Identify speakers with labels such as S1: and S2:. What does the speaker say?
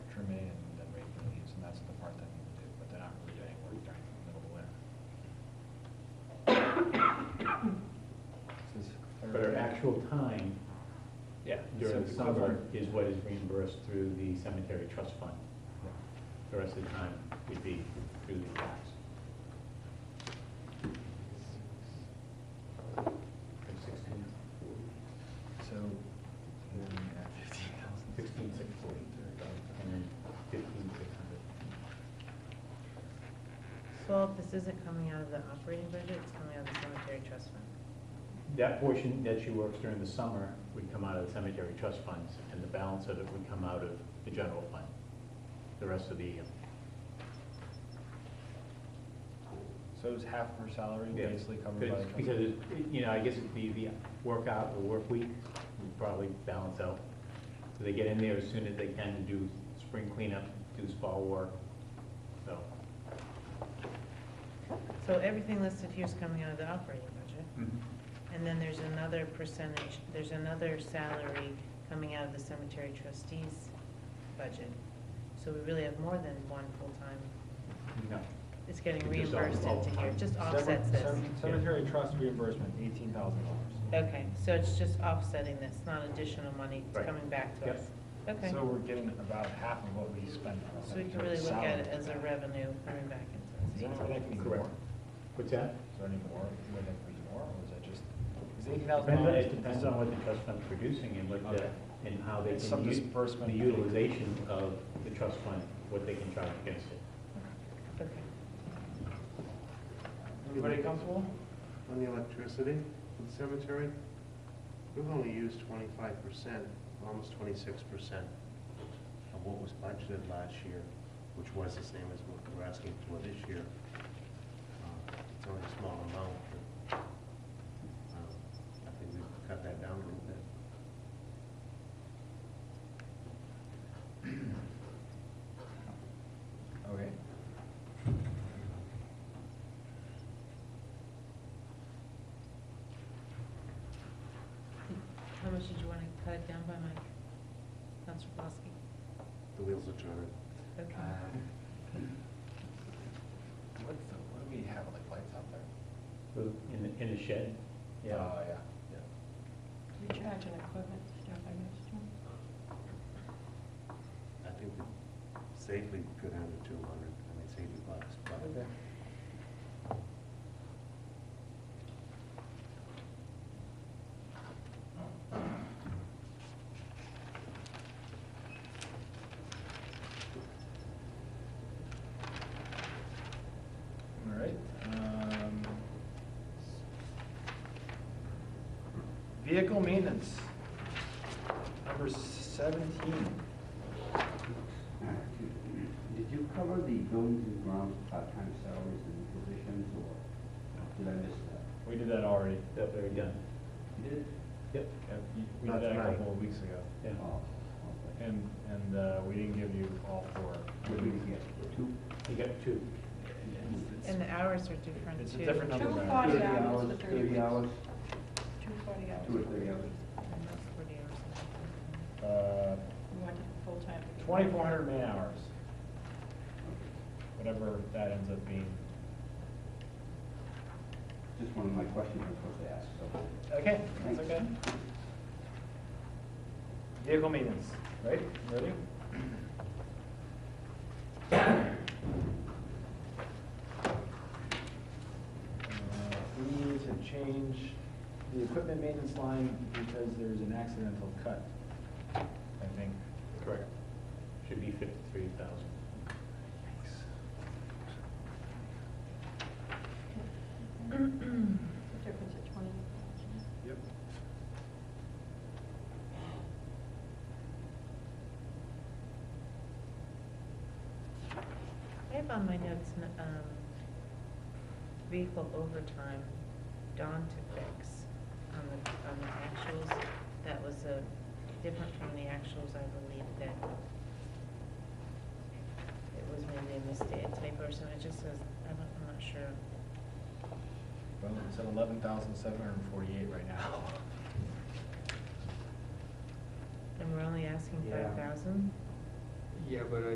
S1: actual time
S2: Yeah,
S1: during the
S2: summer.
S1: summer is what is reimbursed through the cemetery trust fund. The rest of the time would be through the tax. Sixteen,
S3: So, then we add fifteen thousand.
S1: sixteen, six forty, and then fifteen, six hundred.
S4: So this isn't coming out of the operating budget, it's coming out of the cemetery trust fund.
S1: That portion that she works during the summer would come out of the cemetery trust funds, and the balance of it would come out of the general fund, the rest of the year.
S3: So is half of her salary
S1: Yeah,
S3: basically covered by
S1: because-
S3: the trust?
S1: Because, it- you know, I guess it'd be the workout, the work week, would probably balance out. So they get in there as soon as they can to do spring cleanup, do fall work, so.
S4: So everything listed here is coming out of the operating budget.
S3: Mm-hmm.
S4: And then there's another percentage, there's another salary coming out of the cemetery trustees budget. So we really have more than one full-time,
S1: No,
S4: it's getting
S1: It just
S4: reimbursed
S1: all- all
S4: into here, it just
S3: Cemetery-
S4: offsets this.
S3: cem- Cemetery trust reimbursement, eighteen thousand dollars.
S4: Okay, so it's just offsetting this, not additional money
S1: Right.
S4: coming back to
S1: Yep.
S4: us. Okay,
S3: So we're getting about half of what we spend on
S4: so we can
S3: cemetery
S4: really look at
S3: salary.
S4: it as a revenue coming back
S3: Is
S4: into
S3: there
S4: us.
S3: any way that can be more?
S1: Correct. what's that?
S3: Is there any more, would that be more, or is that just, is eighteen thousand
S1: Depends on,
S3: dollars?
S1: it depends on what the trust fund's producing and what the,
S3: Okay.
S1: and how they
S3: It's some
S1: can use,
S3: disbursement.
S1: the utilization of the trust fund, what they can charge against it.
S4: Okay.
S3: Everybody comfortable?
S5: On the electricity in the cemetery, we've only used twenty-five percent, almost twenty-six percent of what was budgeted last year, which was the same as what we're asking for this year. Uh, It's only a small amount, but, um, I think we've cut that down a little bit.
S3: Okay.
S4: How much did you want to cut it down by, Mike? Counselor Bosky?
S5: The wheels are turning.
S3: Um,
S4: Okay.
S3: What's the, what do we have, like lights out there?
S1: In the, in the shed, yeah.
S3: Oh, yeah, yeah.
S6: Recharge and equipment stuff, I guess, too.
S5: I think we safely could have the two hundred, I mean, safety bucks, but.
S3: Okay. All right, um. Vehicle maintenance, number seventeen.
S7: Did you cover the buildings and grounds part-time salaries and positions, or did I miss that?
S3: We did that already.
S1: That they're done,
S7: You did?
S1: yep,
S3: Yeah, you- We
S5: Not
S3: did that a
S5: tonight.
S3: couple of weeks ago.
S1: yeah.
S7: Oh, okay.
S3: And, and uh, we didn't give you all four.
S7: What did we get? Two?
S1: You got two.
S3: It's-
S4: And the hours are different too.
S3: It's a different number.
S6: Two
S3: there.
S6: forty hours
S7: Thirty
S6: for
S7: Thirty
S6: thirty
S7: hours,
S6: weeks. Two forty hours.
S7: two or thirty hours.
S4: And that's 40 hours a week.
S3: Uh,
S6: We want it full-time.
S3: twenty-four hundred man hours, whatever that ends up being.
S7: Just one of my questions I was supposed to ask, so.
S3: Okay, that's okay. Vehicle maintenance, right? Ready? Uh, We need to change the equipment maintenance line because there's an accidental cut, I think.
S1: Correct. Should be fifty-three thousand.
S6: The difference at twenty.
S3: Yep.
S4: I have on my notes, n- um, vehicle overtime, dawn to fix on the, on the actuals. That was a, different from the actuals, I believe that it was maybe a mistake, a typo or something, it just says, I don't, I'm not sure.
S3: Well, it's at eleven thousand seven hundred and forty-eight right now.
S4: And we're only asking
S3: Yeah.
S4: five thousand?
S8: Yeah, but I